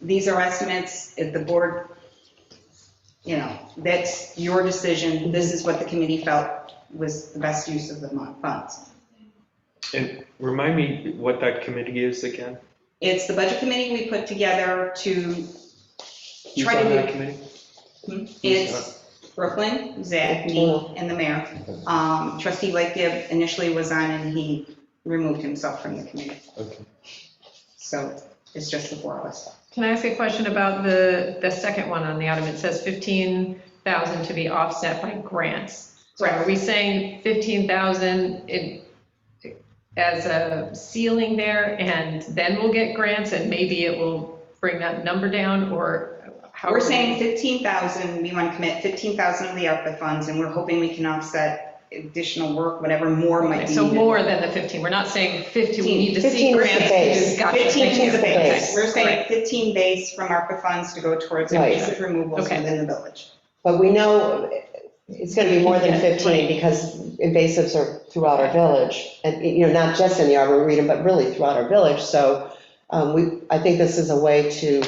these are estimates, if the board, you know, that's your decision, this is what the committee felt was the best use of the mon- funds. And remind me what that committee is again? It's the budget committee we put together to, Who's Try to on that do- committee? it's Brooklyn, Zach, me, and the mayor. Um, Trustee Lake Gibb initially was on and he removed himself from the committee. Okay. So it's just the four of us. Can I ask a question about the, the second one on the item? It says 15,000 to be offset by grants. So are we saying 15,000 in- as a ceiling there and then we'll get grants and maybe it will bring that number down or how? We're are we- saying 15,000, we want to commit 15,000 of the ARPA funds, and we're hoping we can offset additional work, whatever more might be. So needed. more than the 15, we're not saying 50, we need to 15 see is the grants. base. because- gotcha, 15 thank is the you. base. base. We're saying Right. 15 base from ARPA funds to go towards Right. invasive removals Okay. within the village. But we know it's going to be more than Yeah, 15 because invasives are throughout our village. And, you know, not just in the arboretum, but really throughout our village. So um, we, I think this is a way to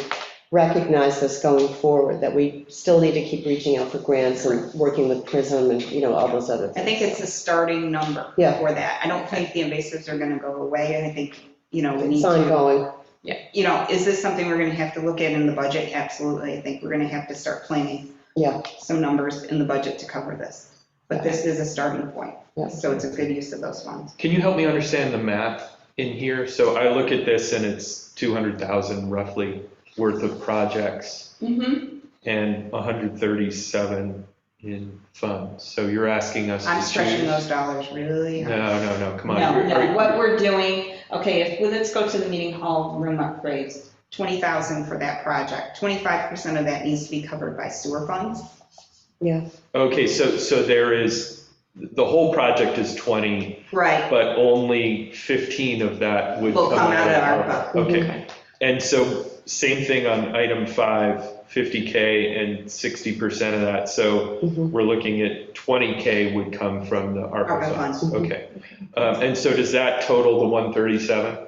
recognize this going forward, that we still need to keep reaching out for grants and working with PRISM and, you know, all those other I things. think it's a starting number Yeah. for that. I don't think the invasives are going to go away, and I think, you know, we need It's to, ongoing. you know, is this something we're going to have to look at in the budget? Absolutely. I think we're going to have to start planning Yeah. some numbers in the budget to cover this. But this is a starting point, Yeah. so it's a good use of those funds. Can you help me understand the math in here? So I look at this and it's 200,000 roughly worth of projects Mhm. and 137 in funds. So you're asking us to I'm stretching choose- those dollars really hard. No, no, no, come on. No, Are- no, what we're doing, okay, if, well, let's go to the meeting hall room upgrades, 20,000 for that project. 25% of that needs to be covered by sewer funds. Okay, so, so there is, the whole project is 20, Right, but only 15 of that would Will come out of ARPA. ARPA. Okay, Okay. And so same thing on item five, 50K and 60% of that. So Mhm. we're looking at 20K would come from the ARPA ARPA funds. funds. Mhm. Okay. Um, And so does that total the 137?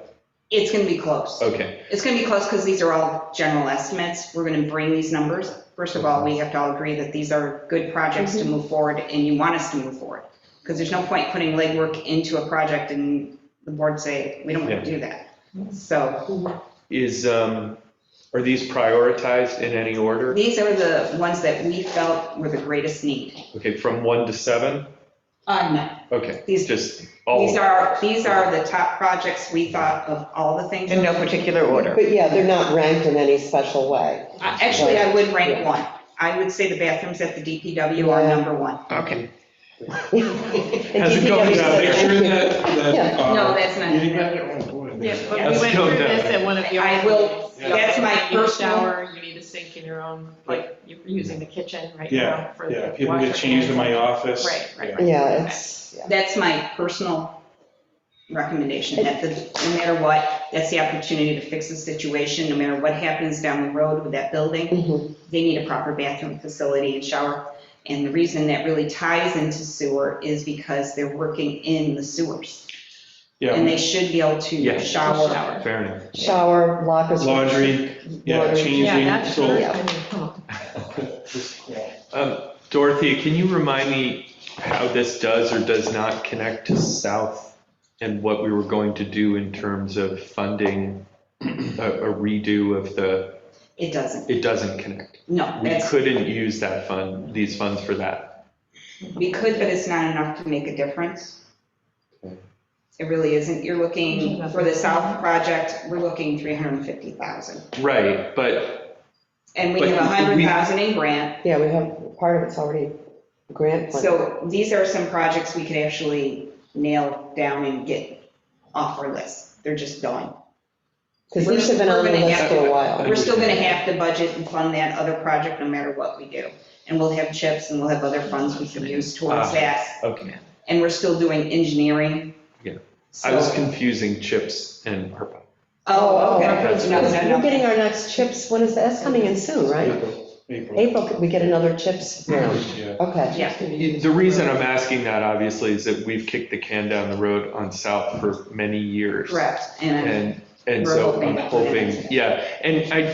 it's going to be Oh, close. Okay, It's going to be close because these are all general estimates. We're going to bring these numbers. First of all, we have to all agree that these are good projects to move forward and you want us to move forward. Because there's no point putting legwork into a project and the board say, we don't want to do that. So is, um, are these prioritized in any order? these are the ones that we felt were the greatest need. Okay, from one to seven? Uh, no, Okay, These, just these all, are, these are the top projects we thought of all the things. In no particular order. But yeah, they're not ranked in any special way. Uh, Actually, I would rank one. I would say the bathrooms at the DPW are Yeah. number one. Okay. how's it going down there? Uh, No, that's not. Yeah, but Yes. we went Go through down. this at one of your. I will- Yeah. that's my You need a personal- shower, you need a sink in your own, like, you're using the kitchen right Yeah, now for the Yeah, washer. people get changed in my office. Right, right, Yeah. right. Yeah, it's, yeah. That's my personal recommendation, that the, no matter what, that's the opportunity to fix the situation, no matter what happens down the road with that building, Mhm. they need a proper bathroom facility and shower. And the reason that really ties into sewer is because they're working in the sewers. And Yeah, they should be able Yeah. to shower fair enough. Shower, lockers. laundry, yeah, Laundry. Yeah, changing, that's, so. Yeah. I mean, come on. Um, Dorothea, can you remind me how this does or does not connect to South and what we were going to do in terms of funding a a redo of the, It doesn't, it doesn't connect. no, We that's, couldn't use that fund, these funds for that. we could, but it's not enough to make a difference. It really isn't, you're looking, for the south project, we're looking 350,000. Right, but, And we But have we- 100,000 in grant, Yeah, we have, part of it's already grant funded. So these are some projects we could actually nail down and get off our list. They're just gone. Because these have been on the list for a while. We're still gonna have to budget and fund that other project no matter what we do. And we'll have chips and we'll have other funds we can use Ah. towards that. okay. And we're still doing engineering. Yeah. I was So, confusing CHIPS and ARPA. oh, okay. No, no, We're getting no. our next chips, when is, that's coming in soon, right? April, April, could we get another chips round? yeah. Okay. Yeah, The reason I'm asking that obviously is that we've kicked the can down the road on South for many years. correct. And I'm And, and We're so hoping I'm that- hoping, yeah, and I,